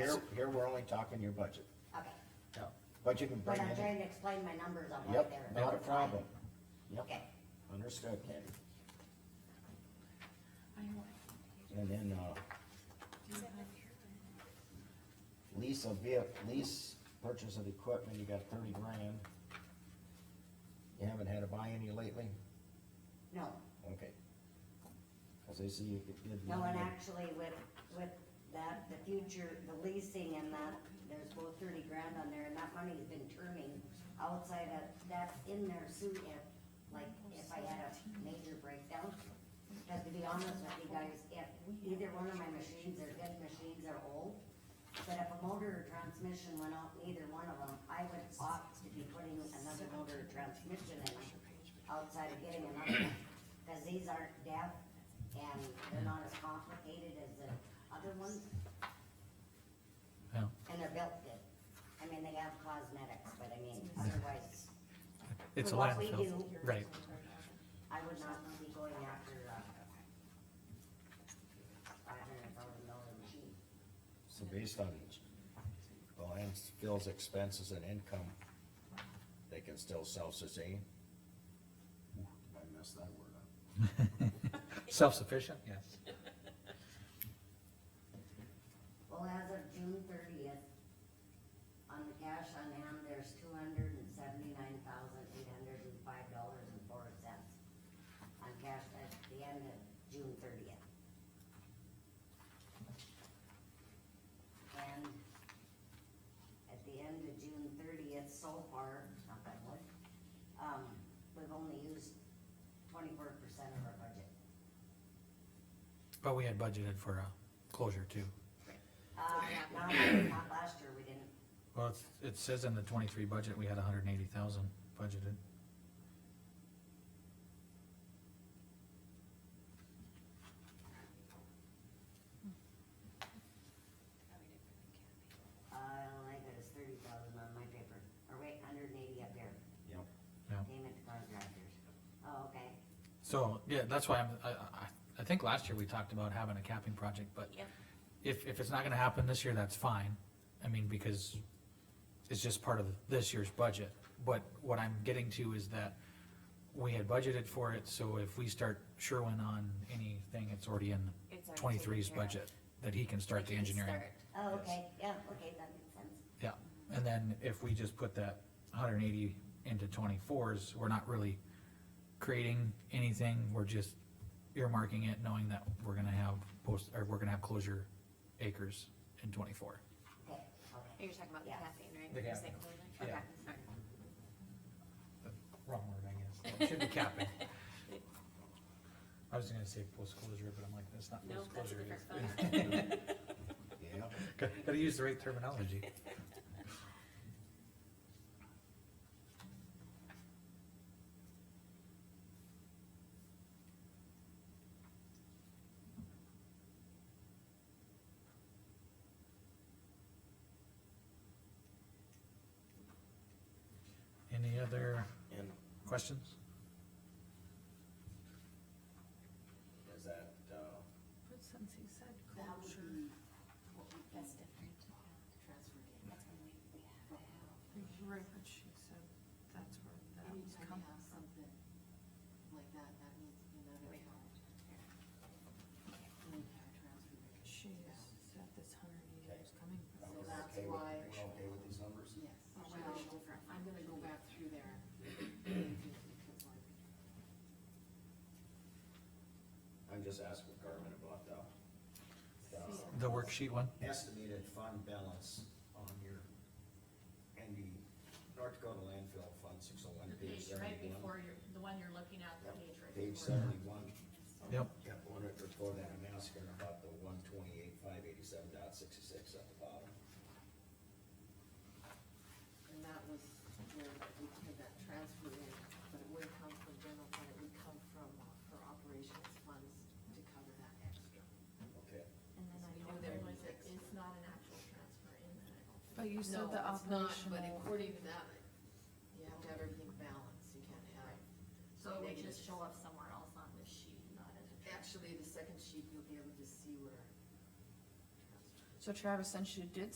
here, here we're only talking your budget, Okay, but you can but bring I'm in, trying to explain my numbers on why yep, they're. not a problem. Yep, Okay, understood, Candy. And then, uh, lease of vehicle, lease purchase of equipment, you got thirty grand. You haven't had to buy any lately? no, Okay. Cause I see you did. no, and actually with, with that, the future, the leasing and that, there's both thirty grand on there, and that money's been turning outside of, that's in there soon if, like, if I had a major breakdown. Because to be honest with you guys, if either one of my machines are dead machines are old, but if a motor or transmission went out in either one of them, I would opt to be putting another motor or transmission in outside of getting another one. Cause these aren't deaf and they're not as complicated as the other ones Yeah, and they're built good. I mean, they have cosmetics, but I mean, otherwise, it's a For what we landfill, do. right, I would not be going after, uh, five hundred thousand dollar machine. So based on the landfill's expenses and income, they can still self-sustain? Ooh, I messed that word up. self-sufficient, yes. Well, as of June thirtieth, on the cash on hand, there's two hundred and seventy-nine thousand, eight hundred and five dollars and four cents on cash at the end of June thirtieth. And at the end of June thirtieth, so far, not that much, um, we've only used twenty-four percent of our budget. But we had budgeted for a closure too. Uh, not, not last year, we didn't, Well, it's, it says in the twenty-three budget, we had a hundred and eighty thousand budgeted. Uh, I got it's thirty thousand on my paper, or wait, hundred and eighty up here, Yep. Yeah. payment to contractors. Oh, okay, So, yeah, that's why I'm, I, I, I think last year we talked about having a capping project, but Yep. if, if it's not gonna happen this year, that's fine. I mean, because it's just part of this year's budget. But what I'm getting to is that we had budgeted for it, so if we start Sherwin on anything, it's already in It's already twenty-three's taken care of. budget, that he can start the We can engineering. start. oh, Yes. okay, yeah, okay, that makes sense. Yeah, and then if we just put that hundred and eighty into twenty-fours, we're not really creating anything, we're just earmarking it, knowing that we're gonna have post, or we're gonna have closure acres in twenty-four. Okay, okay, You're talking about the Yeah. caffeine, right? The You caffeine. say clothing? Yeah. Okay, sorry. Wrong word, I guess, should be capping. I was gonna say post-closure, but I'm like, that's not No, that's a post-closure. different it's- phone. Yep, Gotta gotta use the right terminology. Any other and questions? is that, uh, But since he said That would closure, be what we- That's different. Transferred in. That's when we, we have to have, right, but she said that's where that was Anytime you coming have from. something like that, that means another account, an entire transfer. rate. She said this hundred and eighty was coming are we from. So that's okay with- why- we're okay with these numbers? Yes, Oh, well, wow. I'm gonna go back through there. because we're- I'm just asking Carmen about the, the The worksheet one? estimated fund balance on your, and the North Dakota landfill fund, six oh one, The page page right seventy-one. before your, the one you're looking at, the Yep, page right Page before. seventy-one. Yep. Got one right before that, I'm asking about the one twenty-eight, five eighty-seven dot sixty-six at the bottom. And that was where we had that transfer in, but it wouldn't come from general fund, it would come from her operations funds to cover that extra. Okay, And then I know there was, it is not an actual transfer in that. But you No, said the it's not, But operational, according to that, you have to have everything balanced, you can't have. So it would negative. just show up somewhere else on the sheet, not as a transfer. Actually, the second sheet, you'll be able to see where. so Travis, since you did